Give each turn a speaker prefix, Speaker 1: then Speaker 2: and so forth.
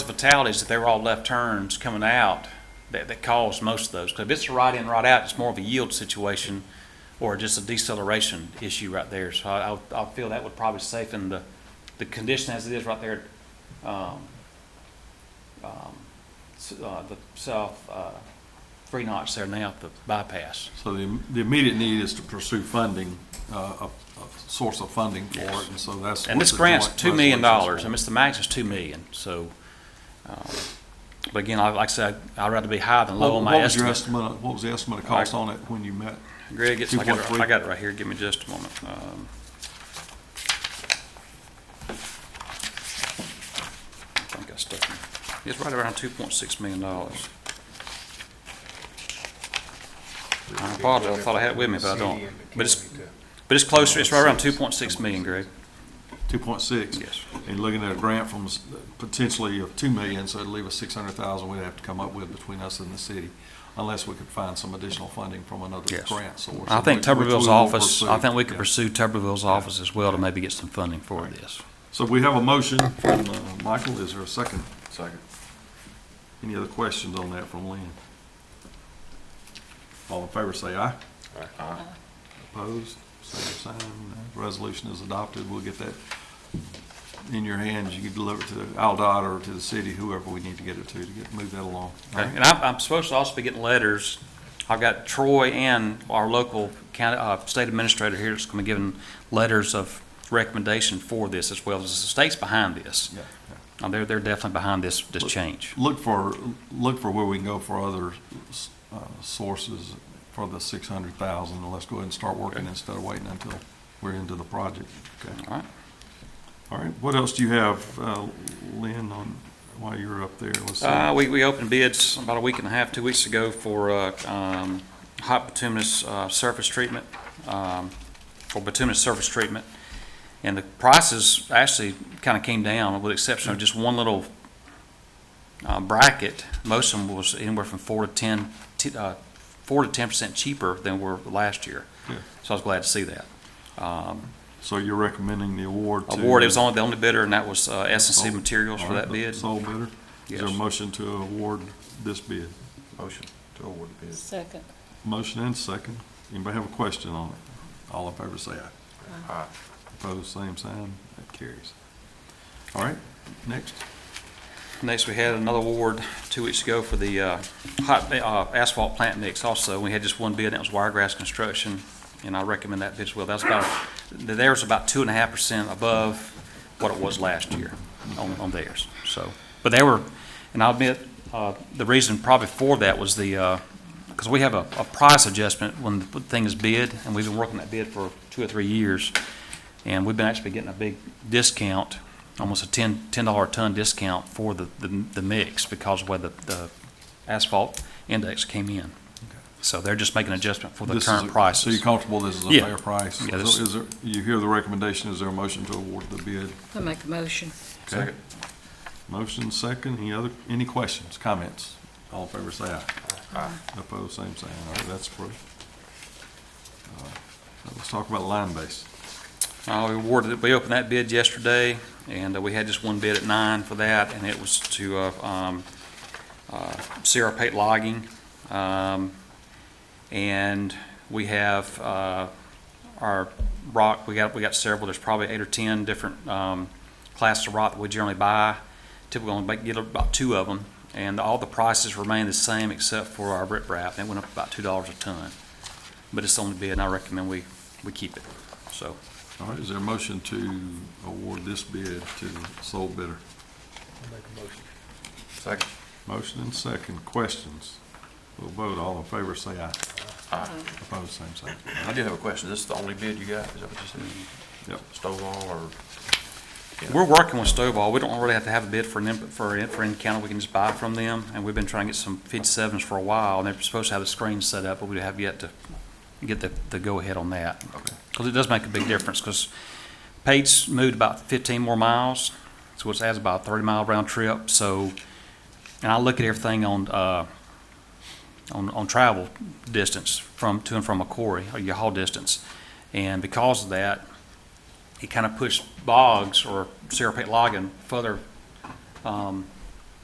Speaker 1: fatalities that they were all left turns coming out that, that caused most of those. Because if it's a right in, right out, it's more of a yield situation or just a deceleration issue right there. So I, I would- I feel that would probably safeten the, the condition as it is right there. um, um, s- uh, The south, uh, three knots there now, the bypass.
Speaker 2: So the, the immediate need is to pursue funding, uh, a, a source of funding for it, and so that's.
Speaker 1: And
Speaker 2: what
Speaker 1: this
Speaker 2: the
Speaker 1: grant's
Speaker 2: joint
Speaker 1: two million dollars,
Speaker 2: resolution's
Speaker 1: I mean, it's the max is two million, so, um, but again, I- like I said, I'd rather be high than
Speaker 2: for.
Speaker 1: low on
Speaker 2: What what
Speaker 1: my
Speaker 2: was your
Speaker 1: estimate.
Speaker 2: estimate, of- what was the estimate of cost on it when you met?
Speaker 1: Greg, it's, I got it,
Speaker 2: 2.3?
Speaker 1: I got it right here, give me just a moment. Um, I think I stuck it, it's right around two point six million dollars. I apologize, I thought I had it with me, but I don't. But it's, but it's closer, it's right around two point six million, Greg,
Speaker 2: Two point six?
Speaker 1: yes.
Speaker 2: And looking at a grant from s- potentially of two million, so it'd leave us six hundred thousand we'd have to come up with between us and the city, unless we could find some additional funding from another
Speaker 1: Yes.
Speaker 2: grant source.
Speaker 1: I think
Speaker 2: which- which we
Speaker 1: Tuberville's
Speaker 2: will
Speaker 1: office, I
Speaker 2: pursue.
Speaker 1: think we could
Speaker 2: Yeah.
Speaker 1: pursue Tuberville's office as well to maybe get some funding for this.
Speaker 2: So we have a motion from uh, Michael. Is there a second? Second. Any other questions on that from Lynn? All in favor, say aye. Aye. Opposed? Same sign. Resolution is adopted. We'll get that in your hands. You can deliver it to Aldott or to the city, whoever we need to get it to, to get, move that along.
Speaker 1: Okay, And I'm, I'm supposed to also be getting letters. I've got Troy and our local county, uh, state administrator here that's gonna be giving letters of recommendation for this as well. The state's behind this.
Speaker 2: Yeah, yeah.
Speaker 1: Uh, They're, they're definitely behind this, this change.
Speaker 2: Look for, look for where we can go for other s- uh, sources for the six hundred thousand, and let's go ahead and start working instead of waiting until we're into the project. Okay.
Speaker 1: All right?
Speaker 2: All right, what else do you have, uh, Lynn, on, while you're up there? Let's see.
Speaker 1: Uh, we, we opened bids about a week and a half, two weeks ago for, uh, um, hot bituminous, uh, surface treatment, um, for bituminous surface treatment. And the prices actually kind of came down, with the exception of just one little, uh, bracket. Most of them was anywhere from four to ten, t- uh, four to ten percent cheaper than were last year.
Speaker 2: Yeah.
Speaker 1: So I was glad to see that. Um,
Speaker 2: So you're recommending the award to?
Speaker 1: award, it was only the only bidder, and that was, uh, S and C
Speaker 2: Oh,
Speaker 1: Materials
Speaker 2: All
Speaker 1: for
Speaker 2: right,
Speaker 1: that
Speaker 2: the
Speaker 1: bid.
Speaker 2: Sole bidder? Is there a
Speaker 1: Yes.
Speaker 2: motion to award this bid?
Speaker 3: Motion to award the bid.
Speaker 4: Second.
Speaker 2: Motion and second. Anybody have a question on it? All in favor, say aye.
Speaker 3: Aye.
Speaker 2: Opposed, same sign. That carries. All right, next.
Speaker 1: Next, we had another award two weeks ago for the uh, hot uh, asphalt plant mix also. We had just one bid, and that was Wiregrass Construction, and I recommend that bid as well. That's about, theirs about two and a half percent above what it was last year on on theirs, so. But they were, and I'll admit, uh, the reason probably for that was the, because we have a a price adjustment when the thing is bid, and we've been working that bid for two or three years, and we've been actually getting a big discount almost a ten, ten dollar a ton discount for the, the, the mix because of where the, the asphalt index came in. So they're just making adjustment for the
Speaker 2: This is
Speaker 1: current
Speaker 2: a- So
Speaker 1: prices.
Speaker 2: you're comfortable this is a
Speaker 1: Yeah.
Speaker 2: fair price?
Speaker 1: Yeah, this-
Speaker 2: So is there, you hear the recommendation, is there a motion to award the bid?
Speaker 4: I make a motion.
Speaker 2: Okay. Motion second, any other, any questions, comments? All in favor, say aye.
Speaker 3: Aye.
Speaker 2: Opposed, same sign. All right, that's approved. Uh, now Let's talk about line base.
Speaker 1: Uh, we awarded, it- we opened that bid yesterday and uh, we had just one bid at nine for that and it was to, uh, um, uh, Sierra Pate Logging. Um, and we have, uh, our rock, we got, we got several, there's probably eight or 10 different um, classes of rock that we generally buy. Typically only make- get about two of them, and all the prices remain the same except for our riprap, and it went up about $2 a ton. But it's only bid, and I recommend we, we keep it, so.
Speaker 2: All right, is there a motion to award this bid to the sole bidder?
Speaker 3: Second.
Speaker 2: Motion and second, questions? We'll vote, all in favor, say aye.
Speaker 3: Aye.
Speaker 2: Opposed, same sign.
Speaker 3: I do have a question. This is the only bid you got? Is that what you said?
Speaker 2: Yep.
Speaker 3: Stovall or? Yeah.
Speaker 1: We're working with Stovall. We don't really have to have a bid for an, input- for an, for any county. We can just buy from them. And we've been trying to get some fifty-sevens for a while, and they're supposed to have the screen set up, but we have yet to get the, the go-ahead on that.
Speaker 2: Okay.
Speaker 1: Because it does make a big difference, because Pate's moved about fifteen more miles, so it's adds about a thirty-mile round trip, so, and I look at everything on, uh, on, on travel distance from, to and from a quarry, or your haul distance. And because of that, it kind of pushed Boggs or Sarah Pate Logan further, um,